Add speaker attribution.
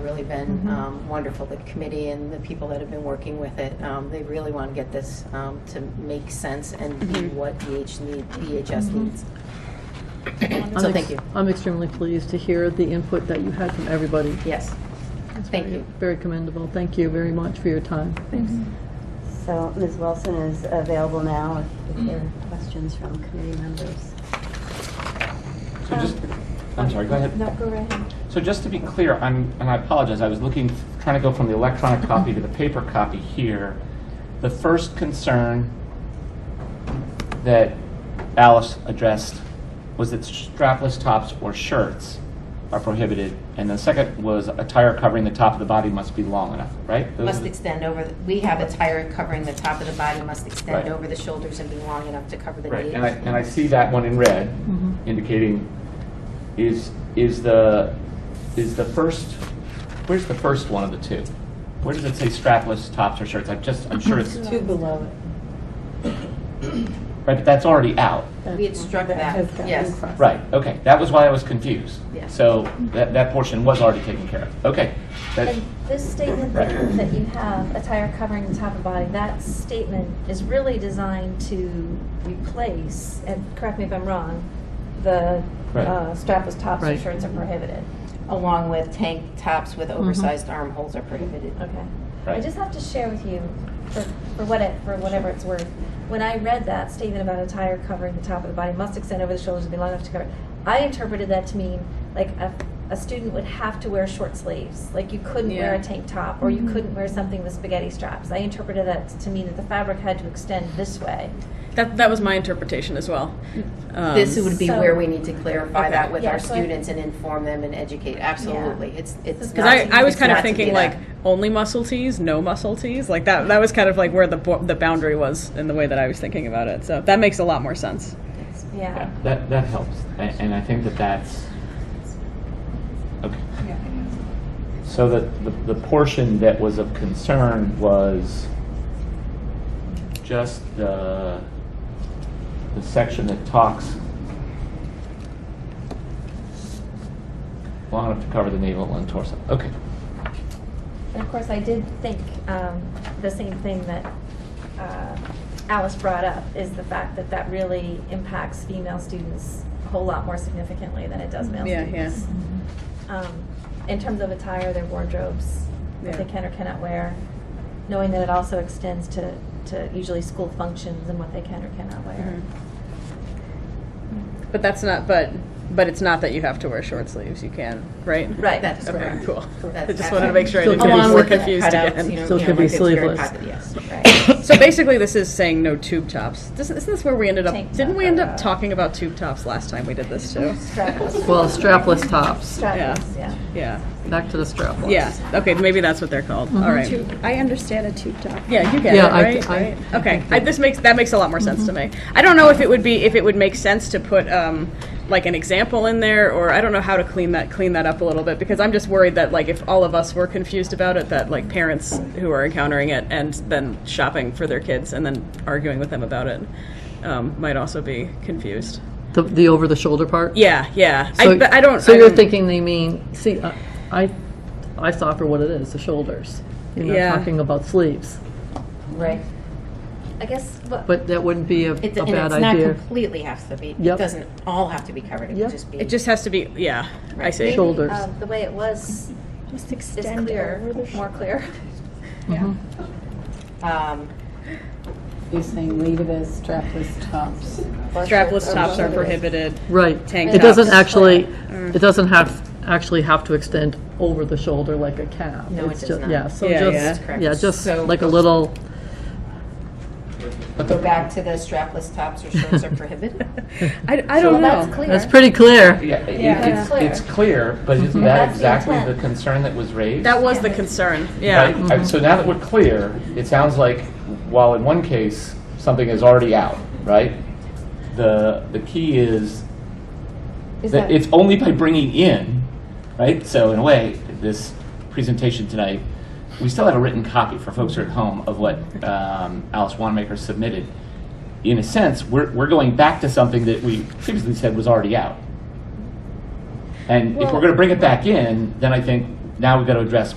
Speaker 1: really been um, wonderful, the committee and the people that have been working with it. Um, They really want to get this um, to make sense and be what DH need- DHS needs. So
Speaker 2: I'm
Speaker 1: thank
Speaker 2: ex-
Speaker 1: you.
Speaker 2: I'm extremely pleased to hear the input that you had from everybody.
Speaker 1: Yes.
Speaker 2: It's
Speaker 1: Thank
Speaker 2: very-
Speaker 1: you.
Speaker 2: Very commendable. Thank you very much for your time.
Speaker 3: So Ms. Wilson is available now if- if there are questions from committee members.
Speaker 4: So just, I'm sorry, go ahead.
Speaker 5: Um, No, go right ahead.
Speaker 4: So just to be clear, I'm, and I apologize, I was looking, trying to go from the electronic copy to the paper copy here. The first concern that Alice addressed was that strapless tops or shirts are prohibited. And the second was attire covering the top of the body must be long enough, right? Those are
Speaker 1: Must
Speaker 4: the-
Speaker 1: extend over, the- we have attire covering the top of the body, must extend
Speaker 4: Right.
Speaker 1: over the shoulders and be long enough to cover the
Speaker 4: Right,
Speaker 1: knee.
Speaker 4: and I, and I see that one in red, indicating, is, is the, is the first, where's the first one of the two? Where does it say strapless tops or shirts? I'm just, I'm sure it's, right,
Speaker 6: Two below it.
Speaker 4: but that's already out.
Speaker 1: We had struck that,
Speaker 6: has gotten
Speaker 1: yes.
Speaker 6: crossed.
Speaker 4: Right, okay, that was why I was confused.
Speaker 1: Yeah.
Speaker 4: So that, that portion was already taken care of. Okay, that's,
Speaker 5: And this statement that that you have, attire covering the top of body, that statement is really designed to replace, and correct me if I'm wrong, the
Speaker 4: Right.
Speaker 5: uh, strapless tops or
Speaker 2: Right.
Speaker 5: shirts are prohibited.
Speaker 1: Along with tank tops with oversized armholes are prohibited.
Speaker 4: Um,
Speaker 5: Okay. I
Speaker 4: Right.
Speaker 5: just have to share with you, for, for what it, for whatever it's worth, when I read that statement about attire covering the top of the body must extend over the shoulders and be long enough to cover, I interpreted that to mean like a, a student would have to wear short sleeves, like you couldn't wear
Speaker 6: Yeah.
Speaker 5: a tank top or
Speaker 4: Mm-hmm.
Speaker 5: you couldn't wear something with spaghetti straps. I interpreted that to mean that the fabric had to extend this way.
Speaker 6: That, that was my interpretation as well. Um,
Speaker 1: This would be
Speaker 5: So-
Speaker 1: where we need to clarify that with
Speaker 5: Yeah,
Speaker 1: our
Speaker 5: so I-
Speaker 1: students and inform them and educate, absolutely. It's, it's.
Speaker 6: Because I,
Speaker 1: not-
Speaker 6: I was
Speaker 1: it's
Speaker 6: kind
Speaker 1: not
Speaker 6: of
Speaker 1: to be
Speaker 6: thinking
Speaker 1: that.
Speaker 6: like only muscle tees, no muscle tees, like that. That was kind of like where the bo- the boundary was in the way that I was thinking about it. So that makes a lot more sense.
Speaker 5: Yeah.
Speaker 4: yeah, that, that helps. A- And I think that that's, okay. So the, the, the portion that was of concern was just the, the section that talks long enough to cover the navel and torso. Okay,
Speaker 5: And of course, I did think um, the same thing that uh, Alice brought up, is the fact that that really impacts female students a whole lot more significantly than it does male
Speaker 6: Yeah, yeah.
Speaker 5: students. Um, In terms of attire, their wardrobes, what they
Speaker 6: Yeah.
Speaker 5: can or cannot wear, knowing that it also extends to, to usually school functions and what they can or cannot wear.
Speaker 6: Mm-hmm. But that's not. But but it's not that you have to wear short sleeves. You can, right?
Speaker 5: Right.
Speaker 1: That's
Speaker 6: Okay.
Speaker 1: correct.
Speaker 6: Cool. I
Speaker 1: That's
Speaker 6: just wanted to make sure I
Speaker 2: Still
Speaker 6: didn't get
Speaker 2: can be
Speaker 6: more
Speaker 2: with the
Speaker 6: confused again.
Speaker 2: Still could be sleeveless.
Speaker 1: Yes.
Speaker 5: Right.
Speaker 6: So basically, this is saying no tube tops. Doesn't, isn't this where we ended up?
Speaker 5: Tank
Speaker 6: didn't
Speaker 5: top
Speaker 6: we end up
Speaker 5: or-
Speaker 6: talking about tube tops last time we did this too?
Speaker 5: Strapless,
Speaker 2: Well, strapless tops.
Speaker 5: strapless, yeah.
Speaker 6: Yeah.
Speaker 2: Back to the strapless.
Speaker 6: Yeah. Okay. Maybe that's what they're called. All right.
Speaker 7: Uh-huh. I understand a tube top.
Speaker 6: Yeah, you get
Speaker 2: Yeah,
Speaker 6: it,
Speaker 2: I-
Speaker 6: right?
Speaker 2: I-
Speaker 6: Right. okay, I, this makes that makes a lot more sense
Speaker 7: Mm-hmm.
Speaker 6: to me. I don't know if it would be if it would make sense to put um, like an example in there, or I don't know how to clean that clean that up a little bit because I'm just worried that like if all of us were confused about it, that like parents who are encountering it and then shopping for their kids and then arguing with them about it um, might also be confused.
Speaker 2: The, the over-the-shoulder part?
Speaker 6: Yeah, yeah. I,
Speaker 2: So-
Speaker 6: but I don't.
Speaker 2: So
Speaker 6: I
Speaker 2: you're
Speaker 6: don't-
Speaker 2: thinking they mean, see, I- I, I saw for what it is, the shoulders. You're
Speaker 6: Yeah.
Speaker 2: not talking about sleeves,
Speaker 1: Right.
Speaker 5: I guess, what,
Speaker 2: but that wouldn't be a, a
Speaker 1: It's, and it's
Speaker 2: bad
Speaker 1: not
Speaker 2: idea.
Speaker 1: completely has to be, it
Speaker 2: Yep.
Speaker 1: doesn't all have to be covered, it would
Speaker 2: Yep.
Speaker 1: just be.
Speaker 6: It just has to be. Yeah, I see.
Speaker 5: maybe
Speaker 2: Shoulders.
Speaker 5: um, the way it was
Speaker 7: Just
Speaker 5: is
Speaker 7: extend
Speaker 5: clear,
Speaker 7: over the
Speaker 5: more
Speaker 7: shoulder.
Speaker 5: clear.
Speaker 1: um,
Speaker 8: You're saying leave it as strapless tops.
Speaker 6: Strapless tops are prohibited.
Speaker 2: Right.
Speaker 6: Tank Mm.
Speaker 2: It doesn't
Speaker 6: tops.
Speaker 2: actually, it doesn't have, actually have to extend over the shoulder like a cap.
Speaker 1: No, it
Speaker 2: It's
Speaker 1: does
Speaker 2: ju-
Speaker 1: not.
Speaker 2: Yeah, so
Speaker 6: Yeah,
Speaker 2: just,
Speaker 1: yeah.
Speaker 2: yeah, just
Speaker 1: So-
Speaker 2: like a little,
Speaker 1: Go back to the strapless tops or shirts are prohibited?
Speaker 6: I, I don't know.
Speaker 5: That's clear.
Speaker 2: that's pretty clear.
Speaker 4: yeah, it-
Speaker 5: Yeah. Mm-hmm.
Speaker 4: it's, it's clear, but isn't that
Speaker 5: That's the
Speaker 4: exactly
Speaker 5: intent.
Speaker 4: the concern that was raised?
Speaker 6: That was the concern. Yeah.
Speaker 4: Right? Uh, So now that we're clear, it sounds like while in one case, something is already out, right? The, the key is that it's only by bringing in, right? So in a way, this presentation tonight, we still have a written copy for folks who are at home of what um, Alice Wanamaker submitted. In a sense, we're, we're going back to something that we previously said was already out. And if we're
Speaker 5: Well-
Speaker 4: going to bring it back in, then I think now we've got to address